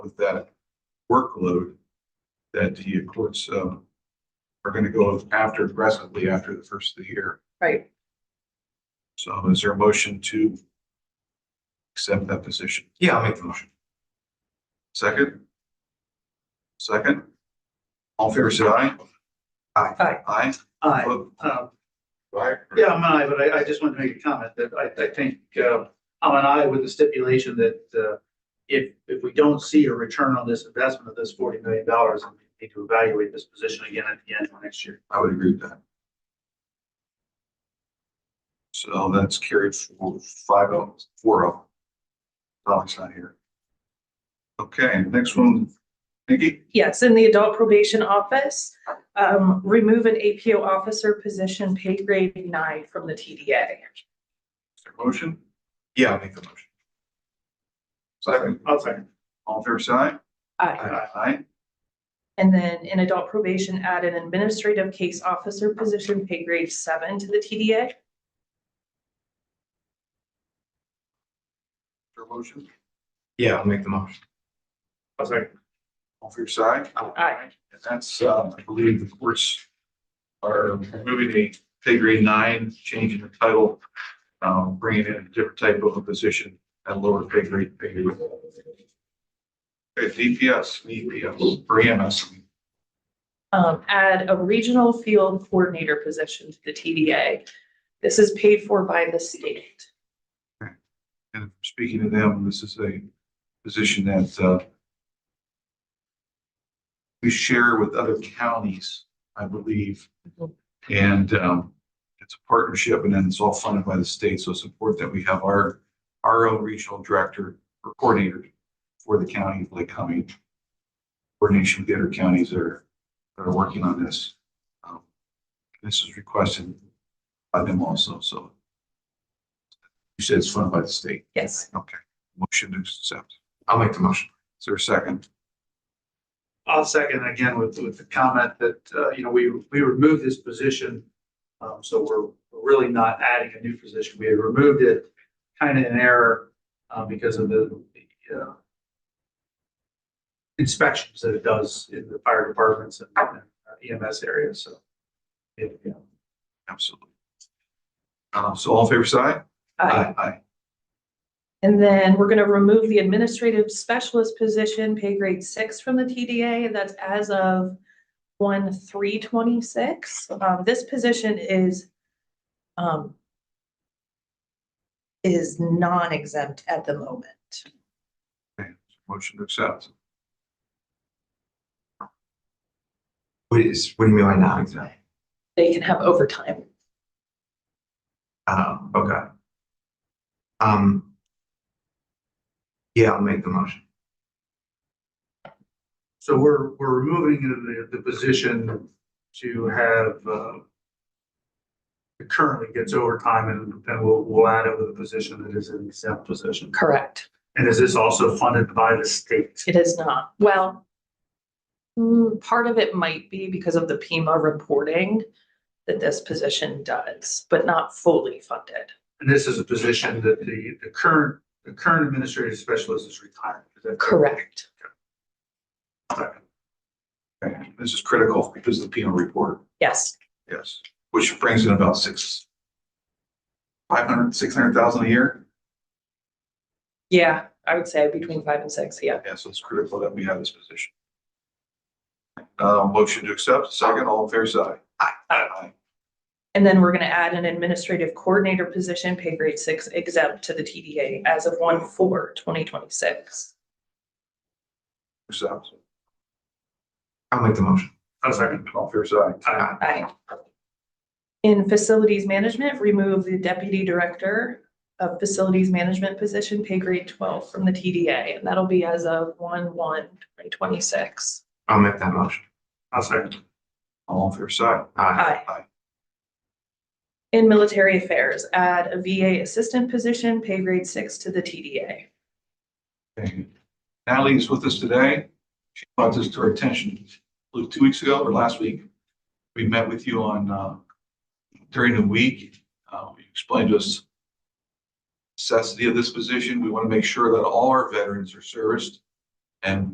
with that workload that the courts, um, are gonna go after aggressively after the first of the year. Right. So is there a motion to accept that position? Yeah, I'll make the motion. Second? Second? All in favor, say aye. Aye. Aye. Aye. Vote Um, Aye. Yeah, I'm an aye, but I, I just wanted to make a comment that I, I think, uh, I'm an aye with the stipulation that, uh, if, if we don't see a return on this investment of this forty million dollars, we need to evaluate this position again at the end of next year. I would agree with that. So that's carried for five oh, four oh. Dominic's not here. Okay, next one, Nikki? Yes, in the adult probation office, um, remove an APO officer position pay grade nine from the TDA. is there a Motion, Yeah, I'll make the motion. second, I'll second. all in favor, say aye. Aye. Aye. Aye. And then in adult probation, add an administrative case officer position pay grade seven to the TDA. Your motion, Yeah, I'll make the motion. I'll second. all in favor, say aye. Aye. And that's, uh, I believe the courts are moving a pay grade nine, changing the title, um, bringing in a different type of a position at lower pay grade. pay grade. Okay, DPS, DPS, E or EMS. Um, add a regional field coordinator position to the TDA. This is paid for by the state. And speaking to them, this is a position that, uh, we share with other counties, I believe. Mhm. And, um, it's a partnership and then it's all funded by the state. So it's important that we have our, our own regional director or coordinator for the county of Lake County. Coordination with the other counties that are, that are working on this. Um, This is requested by them also, so. You said it's funded by the state. Yes. Okay, motion to accept. I'll make the motion. Is there a second? I'll second again with, with the comment that, uh, you know, we, we removed this position. Um, so we're really not adding a new position. We had removed it kind of in error, uh, because of the, the, uh, inspections that it does in the fire departments and uh, EMS areas, so. it, you know, Absolutely. Uh, so all in favor, side? Aye. Aye. And then we're gonna remove the administrative specialist position, pay grade six from the TDA, and that's as of one, three twenty-six. Um, this position is, um, is non-exempt at the moment. Motion to accept. What is, what do you mean by not exempt? They can have overtime. Oh, okay. Um. Yeah, I'll make the motion. So we're, we're removing the, the position to have, uh, it currently gets overtime and then we'll, we'll add over the position that is an exempt position. Correct. And is this also funded by the state? It is not. Well, mm, part of it might be because of the Pima reporting that this position does, but not fully funded. And this is a position that the, the current, the current administrative specialist is retiring. Is that Correct. Okay, This is critical because of the penal report, Yes. yes, which brings in about six, five hundred, six hundred thousand a year. Yeah, I would say between five and six, yeah. Yeah, so it's critical that we have this position. Uh, motion to accept, second, all in favor, side? Aye. Aye. And then we're gonna add an administrative coordinator position, pay grade six exempt to the TDA as of one four twenty twenty-six. Accept. I'll make the motion. I'll second. All in favor, side? Aye. Aye. In facilities management, remove the deputy director of facilities management position, pay grade twelve from the TDA, and that'll be as of one one twenty twenty-six. I'll make that motion. I'll second. All in favor, side? Aye. Aye. Aye. In military affairs, add a VA assistant position, pay grade six to the TDA. Okay. Natalie's with us today. She brought this to our attention I believe, two weeks ago or last week. We met with you on, uh, during the week. Uh, you explained to us necessity of this position. We want to make sure that all our veterans are serviced and